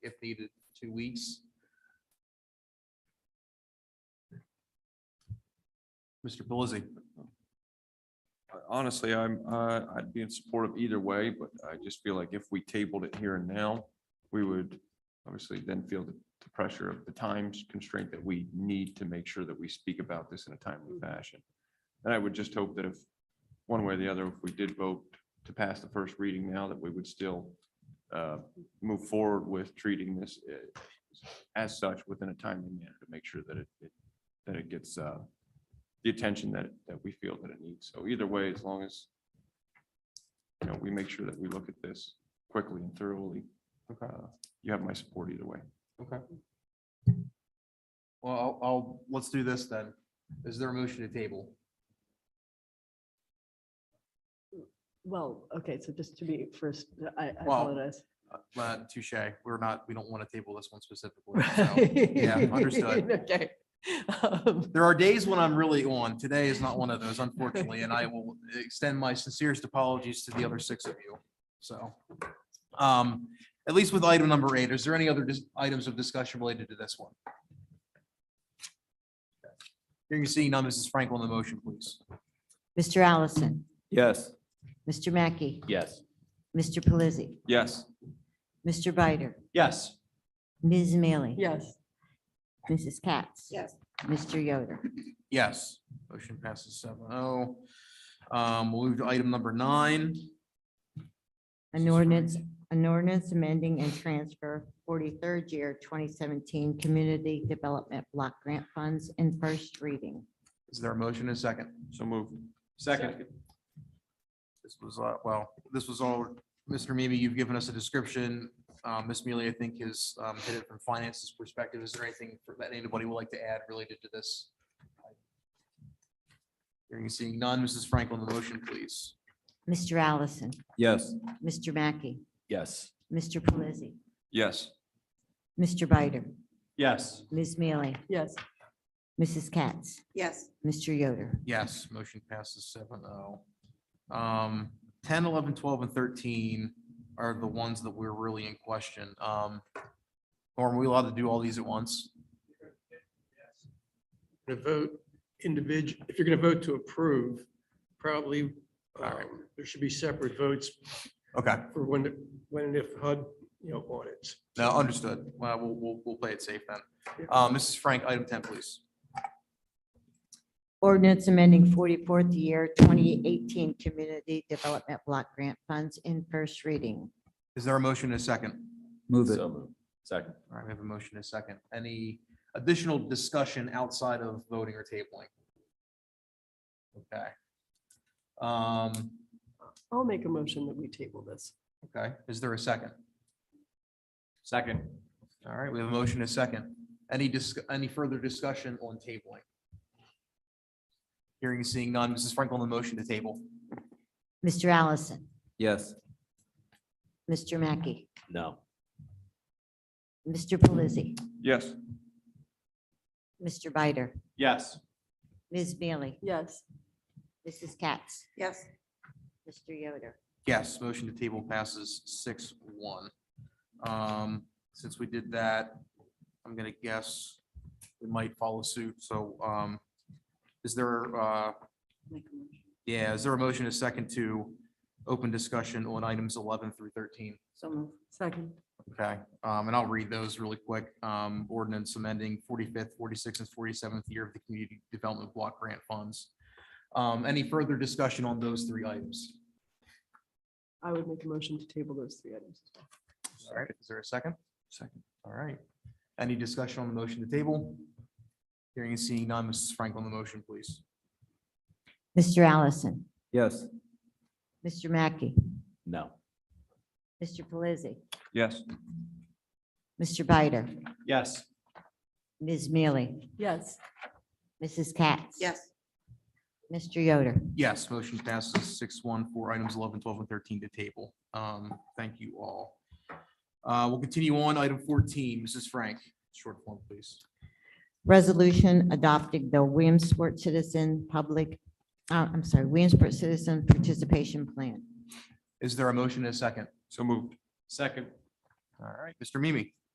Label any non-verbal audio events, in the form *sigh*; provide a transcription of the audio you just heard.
if needed, two weeks. Mr. Pelisi. Honestly, I'm, uh, I'd be in support of either way, but I just feel like if we tabled it here and now, we would obviously then feel the the pressure of the times constraint that we need to make sure that we speak about this in a timely fashion. And I would just hope that if, one way or the other, if we did vote to pass the first reading now, that we would still uh, move forward with treating this uh, as such within a timely manner to make sure that it, it- that it gets uh, the attention that, that we feel that it needs. So either way, as long as, you know, we make sure that we look at this quickly and thoroughly, Okay. uh, you have my support either way. Okay. Well, I'll, I'll, let's do this then. Is there a motion to table? Well, okay, so just to be first, I I Well, apologize. Uh, touche, we're not, we don't want to table this one specifically. so. yeah, understood. *laughs* Okay. Um, There are days when I'm really on. Today is not one of those, unfortunately, and I will extend my sincerest apologies to the other six of you. So, um, at least with item number eight, is there any other dis- items of discussion related to this one? Hearing and seeing none, Mrs. Frank on the motion, please. Mr. Allison. Yes. Mr. Mackey. Yes. Mr. Pelisi. Yes. Mr. Bider. Yes. Ms. Mealy. Yes, Mrs. Katz. Yes. Mr. Yoder. Yes, motion passes seven oh. Um, we'll move to item number nine. An ordinance, an ordinance amending and transfer forty-third year twenty seventeen Community Development Block Grant Funds in first reading. Is there a motion and a second? So moved. Second. This was, uh, well, this was all, Mr. Mimi, you've given us a description. Um, Ms. Mealy, I think has, um, hit it from finances perspective. Is there anything for- that anybody would like to add related to this? Hearing and seeing none, Mrs. Frank on the motion, please. Mr. Allison. Yes. Mr. Mackey. Yes. Mr. Pelisi. Yes. Mr. Bider. Yes. Ms. Mealy. yes, Mrs. Katz. yes, Mr. Yoder. Yes, motion passes seven oh. Um, ten, eleven, twelve, and thirteen are the ones that we're really in question. Um, or are we allowed to do all these at once? to vote individual, if you're going to vote to approve, probably right. um, there should be separate votes Okay. for when, when and if HUD, you know, audits. No, understood. Well, we'll, we'll, we'll play it safe then. Uh, Mrs. Frank, item ten, please. Ordinance amending forty-fourth year twenty eighteen Community Development Block Grant Funds in first reading. Is there a motion and a second? Move it. Second. All right, we have a motion and a second. Any additional discussion outside of voting or tabling? Okay. Um, I'll make a motion that we table this. okay, is there a second? Second. All right, we have a motion and a second. Any dis, any further discussion on tabling? Hearing and seeing none. Mrs. Frank on the motion to table. Mr. Allison, Yes. Mr. Mackey, No. Mr. Pelisi, Yes. Mr. Bider, Yes. Ms. Mealy, Yes, Mrs. Katz, yes, Mr. Yoder. Yes, motion to table passes six one. Um, since we did that, I'm gonna guess we might follow suit, so, um, is there, uh, yeah, is there a motion, a second to open discussion on items eleven through thirteen? so move, second, Okay, um, and I'll read those really quick. Um, ordinance amending forty-fifth, forty-sixth, and forty-seventh year of the Community Development Block Grant Funds. Um, any further discussion on those three items? I would make a motion to table those three items. as well. All right, is there a second? Second. All right. Any discussion on the motion to table? Hearing and seeing none, Mrs. Frank on the motion, please. Mr. Allison, Yes. Mr. Mackey, No. Mr. Pelisi, Yes. Mr. Bider, Yes. Ms. Mealy, Yes, Mrs. Katz. yes, Mr. Yoder. Yes, motion passes six one for items 11, 12, and thirteen to table. Um, thank you all. Uh, we'll continue on. Item fourteen, Mrs. Frank, short form, please. Resolution adopting the Williamsport Citizen Public, uh, I'm sorry, Williamsport Citizen Participation Plan. Is there a motion and a second? So moved. Second. All right, Mr. Mimi.